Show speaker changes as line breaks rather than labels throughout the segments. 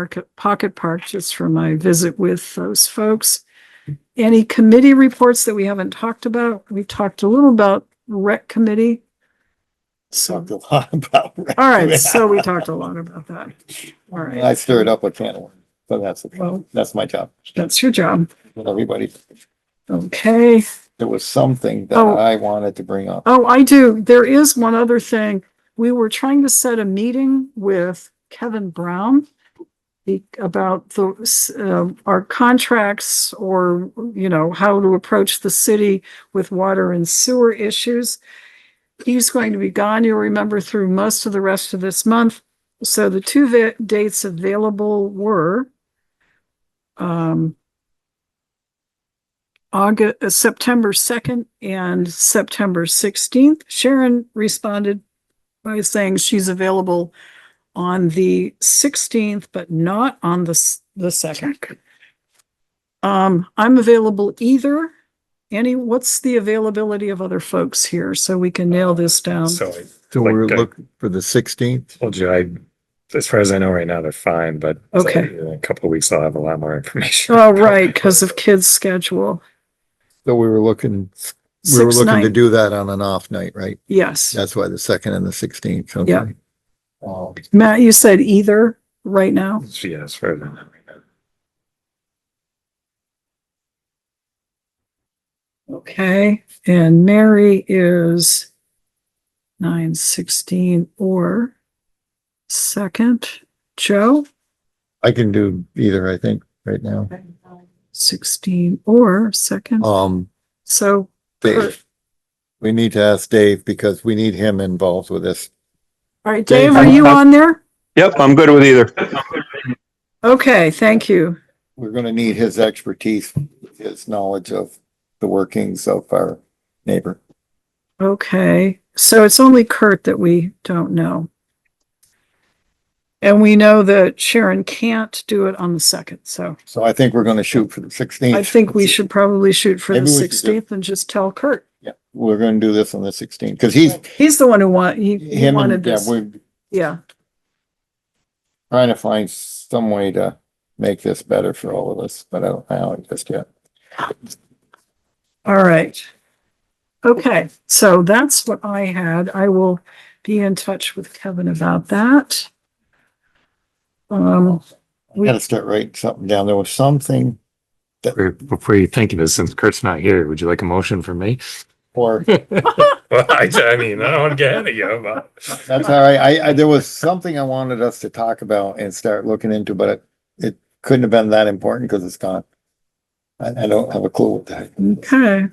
Market Pocket Park just for my visit with those folks. Any committee reports that we haven't talked about? We've talked a little about rec committee. So,
talked a lot about.
all right, so we talked a lot about that. All right.
I stirred up a can of worms, but that's,
Well-
that's my job.
That's your job.
with Everybody,
Okay.
there was something that
Oh.
I wanted to bring up.
Oh, I do. There is one other thing. We were trying to set a meeting with Kevin Brown the- about the, um, our contracts or, you know, how to approach the city with water and sewer issues. He's going to be gone, you'll remember, through most of the rest of this month. So the two va- dates available were um, August, September second and September sixteenth. Sharon responded by saying she's available on the sixteenth, but not on the, s- the second. Um, I'm available either. Any, what's the availability of other folks here so we can nail this down?
So I
So
we're Like, uh,
looking for the sixteenth?
told you, I, as far as I know right now, they're fine, but
Okay.
in a couple of weeks, I'll have a lot more information.
Oh, right, because of kids' schedule.
So we were looking,
Six, nine,
do that on an off night, right?
yes.
That's why the second and the sixteenth. Um,
Yeah. Matt, you said either right now?
Yeah, as far as I know right now.
Okay, and Mary is nine sixteen or second, Joe
I can do either, I think, right now.
sixteen or second,
Um,
so.
Dave. We need to ask Dave because we need him involved with this.
All right,
Dave,
Dave, are you on there?
Yep, I'm good with either.
Okay, thank you.
We're gonna need his expertise, his knowledge of the workings of our neighbor.
Okay, so it's only Kurt that we don't know. And we know that Sharon can't do it on the second, so
So I think we're gonna shoot for the sixteenth.
I think we should probably shoot for the
Maybe we should do-
sixteenth and just tell Kurt.
Yeah, we're gonna do this on the sixteenth, because he's,
He's the one who want, he- he
him
wanted
and, yeah,
this.
we're
Yeah,
trying to find some way to make this better for all of us, but I don't know it just yet.
all right. Okay, so that's what I had. I will be in touch with Kevin about that. Um,
We gotta start writing something down. There was something
Or Before you think of it, since Kurt's not here, would you like a motion from me?
for,
Well, I, I mean, I don't want to get ahead of you, but.
that's all right. I, I, there was something I wanted us to talk about and start looking into, but it, it couldn't have been that important because it's gone. I, I don't have a clue what that.
okay.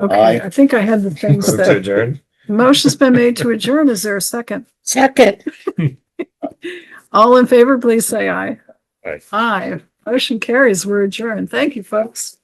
Okay,
Aye.
I think I had the things
Move to
that,
adjourn.
motion's been made to adjourn. Is there a second?
Second.
All in favor, please say aye.
Aye.
Aye. Motion carries. We're adjourned. Thank you, folks.